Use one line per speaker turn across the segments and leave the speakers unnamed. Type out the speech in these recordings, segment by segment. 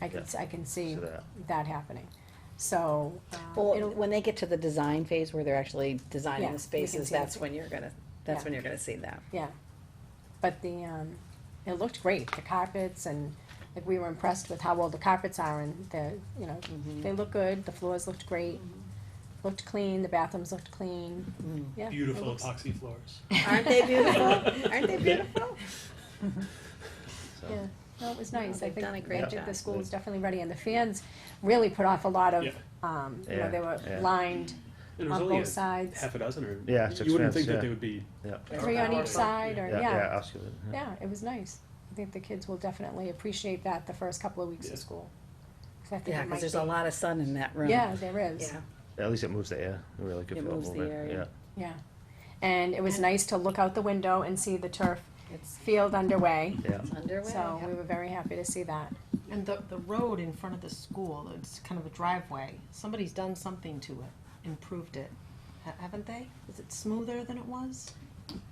I can, I can see
See that.
that happening. So, uh,
Well,
it'll,
when they get to the design phase where they're actually
Yeah,
designing
we can
the spaces,
see that.
that's when you're gonna, that's
Yeah.
when you're gonna see that.
yeah. But the, um, it looked great, the carpets and, like, we were impressed with how well the carpets are and the, you know, they look good, the floors looked great, looked clean, the bathrooms looked clean,
Mm-hmm.
yeah. it
Beautiful
looks-
epoxy floors.
Aren't they beautiful? Aren't they beautiful?
so.
Yeah, no, it was
No,
nice, I
they've
think,
done a
I
great
think the
job.
school is definitely ready, and the fans really put off a lot of,
Yeah.
um, you know,
Yeah,
they were
yeah.
lined on
And there's only
both
a
sides,
half a dozen or.
Yeah, six
You
minutes,
wouldn't think that
yeah.
they would be.
Yeah,
three on
Or-
each side, or,
yeah, yeah, ask you that, yeah.
Yeah, it was nice. I think the kids will definitely appreciate that the first couple of weeks
Yeah.
of school. 'Cause I think
Yeah,
it might
cause there's a
be-
lot of sun in that room.
Yeah, there is,
Yeah.
At least it moves the air, it really could
It
feel it
moves the
moving,
air, yeah.
yeah.
yeah. And it was nice to look out the window and see the turf
It's
field underway,
Yeah,
underway.
so we were very happy to see that.
And the, the road in front of the school, it's kind of a driveway, somebody's done something to it, improved it, ha- haven't they? Is it smoother than it was?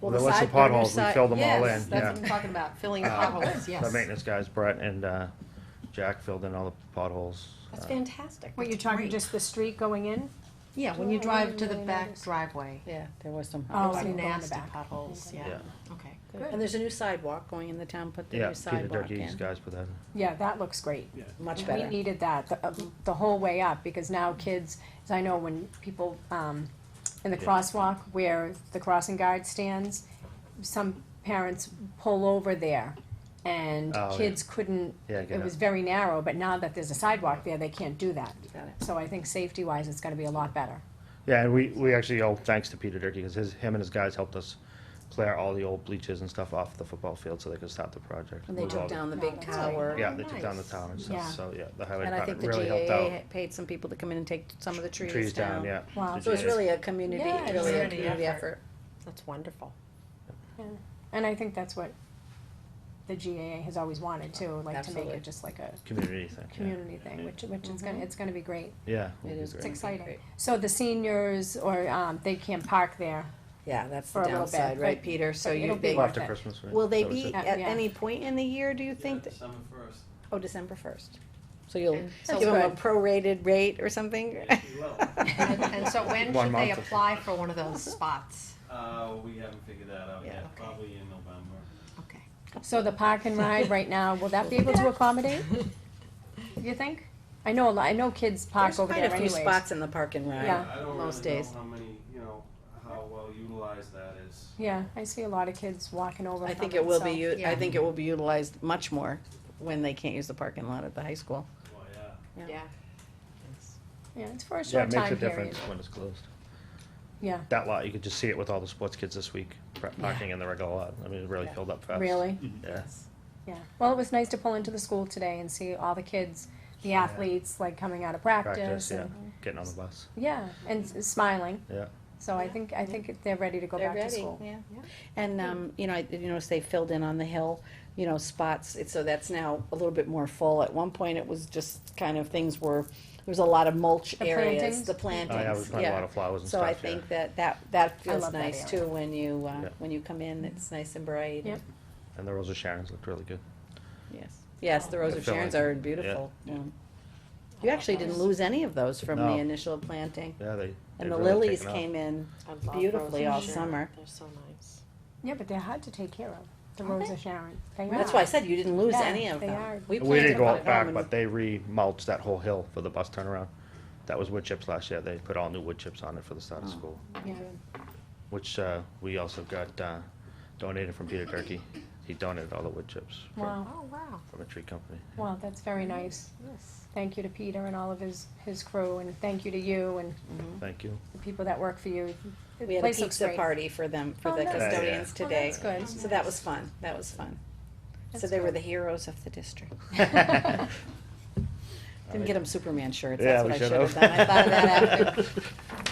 Well, there was some potholes, we filled them all in,
Yes, that's what
yeah.
I'm talking about, filling the
Uh,
potholes,
The
Oh, yes.
maintenance guys, Brett and, uh, Jack filled in all the potholes.
That's
uh,
fantastic.
What, you're
that's
talking
great.
just the street going in?
Yeah, when you
Oh, I
drive
didn't
to the
really
back
notice.
driveway,
Yeah, there was some.
Oh,
there's
I
some
didn't go in the
nasty
back.
potholes,
Okay.
yeah,
Yeah.
okay.
And there's a new sidewalk going in the town, put the
Yeah,
new
Peter
sidewalk
Durkee's
in.
guys put that in.
Yeah, that looks great.
Yeah.
Much
We
better.
needed that, the, uh, the whole way up, because now kids, as I know when people, um, in the
Yeah.
crosswalk where the crossing guard stands, some parents pull over there, and
Oh, yeah.
kids couldn't,
Yeah, get
it was
up.
very narrow, but now that there's a sidewalk there, they can't do that.
Got it.
So I think safety-wise, it's gonna be a lot better.
Yeah, and we, we actually owe thanks to Peter Durkee, because his, him and his guys helped us clear all the old bleachers and stuff off the football field so they could start the project.
And they
Well,
took down the
No,
big
that's
tower.
Yeah, they took down the
Nice.
tower and
Yeah.
stuff, so, yeah, the highway
And I think
department
the
really helped out.
GAA paid some people to come in and take some of the
Trees down, yeah.
Wow.
The
So it's
GAA.
really a community,
Yeah, it's
really a
community
community
effort.
effort.
That's wonderful.
And I think that's what the GAA has always wanted too, like to make
Absolutely. Mm-hmm.
it just like a
Community thing, yeah.
community thing, which, which is gonna, it's gonna be great.
Yeah.
It
would be
is
great.
It's exciting.
Great.
So the seniors, or, um, they can park there,
Yeah, that's
For
the
a little bit,
downside, right,
but-
Peter? So
but it'll
you,
be
they,
Well, After
worth it.
Christmas, right?
will they
That was
be
it.
Yeah,
at
yeah.
any point in the year, do you think? that-
December first.
Oh, December first. So you'll
So
give them a
good.
prorated rate or something?
Yes, we will.
And, and so when
One
should they
month.
apply for one of those spots?
Uh, we haven't figured that out
Yeah,
yet,
okay.
probably in November.
Okay.
So the park and ride right now, will that be able to accommodate? You think? I know a lot, I know kids park
There's
over
quite
there
a few
anyways.
spots in the park and
Yeah.
ride,
I don't
most
really know
days.
how many, you know, how well utilized that is.
Yeah, I see a lot of kids walking over
I
from
think it will be,
so-
u-
Yeah.
I think it will be utilized much more when they can't use the parking lot at the high school.
Well, yeah.
Yeah.
Yeah, it's for a
Yeah,
short
it makes a
time period.
difference when it's closed.
Yeah,
That lot, you could just see it with all the sports kids this week, pra- parking in the regular lot. I mean, it really
Yeah.
filled up fast.
really?
Mm-hmm.
Yeah.
Yeah. Well, it was nice to pull into the school today and see all the kids, the
Yeah.
athletes, like coming out of practice
Practice, yeah.
and,
Getting on the bus,
yeah, and s- smiling.
yeah.
So I think, I think they're ready to go
They're
back to
ready,
school.
Yeah.
Yeah.
And, um, you know, I, you notice they filled in on the hill, you know, spots, it's, so that's now a little bit more full. At one point, it was just kind of things were, there was a lot of mulch
The plantings?
areas, the
Oh, yeah, we
plantings,
planted a lot
yeah.
of flowers and
So
stuff,
I
yeah.
think that, that, that feels
love that
nice
area.
too, when you, uh,
Yeah.
when you come in, it's nice and bright.
Yep.
And the Rose of Sharon's looked really good.
Yes, yes, the Rose
The
of Sharon's
filling,
are beautiful. Um, You actually didn't lose any of those from the
No.
initial planting,
Yeah, they.
and the
they've really
lilies
taken off.
came in
I love
beautifully
Rose
all
and Sharon.
summer.
They're so nice.
Yeah, but they're hard to take care of, the
Are
Rose
they?
of Sharon. They are.
That's why I said you didn't lose
Yeah,
any of
they
them.
are.
We
planted
didn't go
them
out back,
and-
but they remulched that whole hill for the bus turnaround. That was wood chips last year. They put all new wood chips on it for the start of
Oh.
school,
Yeah.
which, uh, we also got, uh, donated from Peter Durkee. He donated all the wood chips from,
Wow,
Oh, wow,
from a tree company.
wow, that's very nice.
yes.
Thank you to Peter and all of his, his crew, and thank you to you and
Mhm.
Thank you.
the people that work for you. The
We had a
place looks
pizza
great.
party for them, for
Oh,
the
nice.
Yeah, yeah.
custodians
Oh,
today.
that's good.
So that was fun, that was fun. So
That's
they were
good.
the heroes of the district.
Yeah,
Didn't get them Superman shirts, that's what
Oh, we
I
should
should have done, I thought of that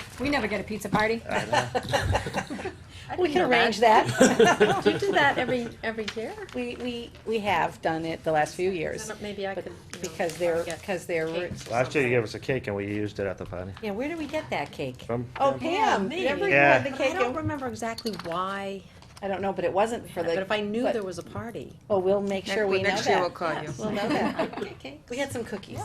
after.
We never get a pizza party.
We
know
can
that.
arrange that.
Do you do that every, every year?
We, we, we have done it the last few years,
Maybe I
but-
could, you know,
because they're,
get
because they're,
cakes
Last
or
year you
something.
gave us a cake and we used it at the party.
yeah, where do we get that cake?
From,
Oh,
Yeah,
Pam,
me.
remember you
Yeah.
had the
But I
cake?
don't
and-
remember exactly why
I don't know, but it wasn't for
But
the,
if I knew
but- Oh,
there was a party,
well, we'll make
next
sure we know
next year we'll
that.
call you.
We'll know that. We had some cookies.